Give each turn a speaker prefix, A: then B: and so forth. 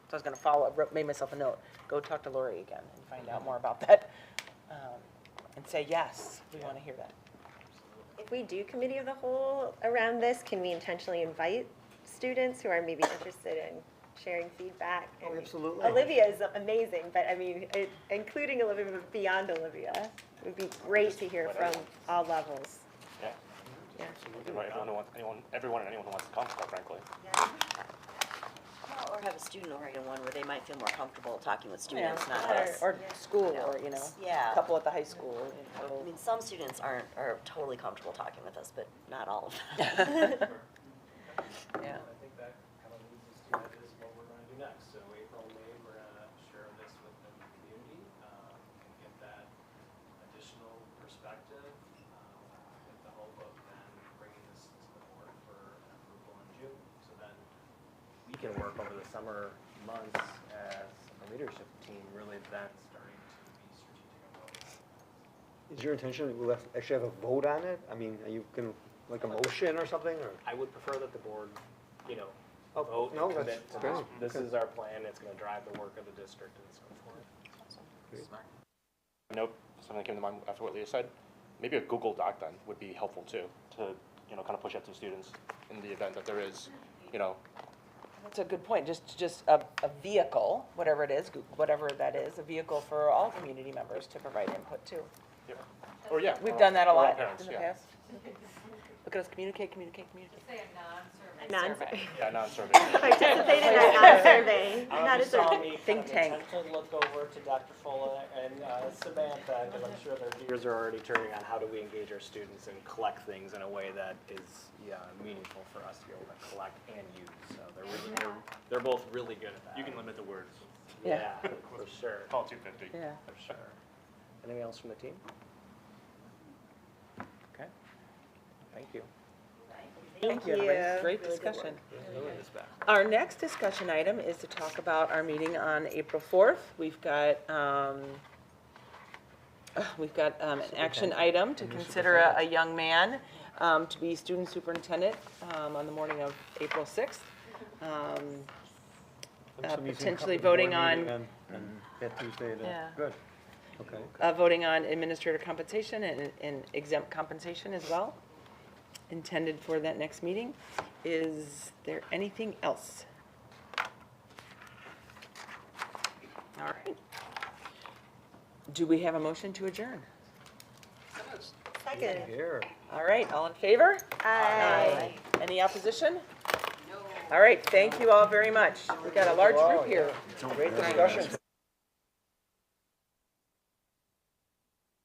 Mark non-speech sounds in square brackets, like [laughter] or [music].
A: So I was gonna follow, I wrote, made myself a note, go talk to Lori again and find out more about that. um, And say, yes, we wanna hear that.
B: If we do committee of the whole around this, can we intentionally invite students who are maybe interested in sharing feedback? And
C: absolutely.
B: Olivia is amazing, but I mean, it- including Olivia, but beyond Olivia, it would be great to hear from all levels.
D: Yeah.
B: Yeah.
D: Right, anyone who wants, anyone, everyone and anyone who wants to come, quite frankly.
E: Or have a student orient one where they might feel more comfortable talking with
A: Yeah,
E: students, not
A: or-
E: us.
A: Or school,
E: No,
A: or, you know,
E: it's- yeah.
A: couple at the high school. you know.
E: I mean, some students aren't, are totally comfortable talking with us, but not all of
A: [laughs]
E: them. [laughs]
A: Yeah.
F: I think that kind of leads us to that is what we're gonna do next. So April, May, we're gonna share this with the community, um, and get that additional perspective, um, with the hope of then bringing this to the board for an approval in June. So then we can work over the summer months as a leadership team, really then starting to be strategic about that.
C: Is your intention that we'll have- actually have a vote on it? I mean, are you going, to like a motion or something, or?
F: I would prefer that the board, you know,
C: Oh,
F: vote
C: no,
F: and commit
C: that's
F: to
C: fair.
F: this. This is our plan, it's gonna drive the work of the district and so forth.
D: Nope, something that came to mind after what Leah said, maybe a Google Doc then would be helpful too, to, you know, kind of push out to students in the event that there is, you know,
A: That's a good point, just, just a, a vehicle, whatever it is, Goo- whatever that is, a vehicle for all community members to provide input to.
D: yeah. or yeah.
A: We've
D: or-
A: done that a
D: or our
A: lot
D: parents,
A: in the
D: yeah.
A: past. Look at us communicate, communicate, communicate.
G: Say a non-survey.
B: Non- [laughs]
D: Yeah, non-survey.
B: Participate in that non-survey,
F: Um,
B: not
F: you
B: a
F: saw
B: survey.
F: me kind
A: Think
F: of
A: tank.
F: attempt to look over to Dr. Fuller and uh, Samantha, because I'm sure their gears are already turning on how do we engage our students and collect things in a way that is, yeah, meaningful for us to be able to collect and use. So they're really, they're, they're both really good at that.
D: limit the words.
F: Yeah, for sure,
D: Call two fifty.
A: Yeah.
F: for sure. Anything else from the team? Okay, thank you.
A: Thank you, everybody. Great discussion. Our next discussion item is to talk about our meeting on April 4th. We've got, um, uh, we've got um, an action item to consider a a young man um, to be student superintendent um, on the morning of April 6th. Um, Uh, potentially voting on-
C: That Tuesday, the-
A: Yeah.
C: good, okay.
A: uh, Voting on administrator compensation and- and exempt compensation as well, intended for that next meeting. Is there anything else? All right. Do we have a motion to adjourn?
B: Second.
C: Here.
A: All right, all in favor?
B: Aye.
A: Any opposition? All right, thank you all very much. We've got a large group here.
C: Great discussion.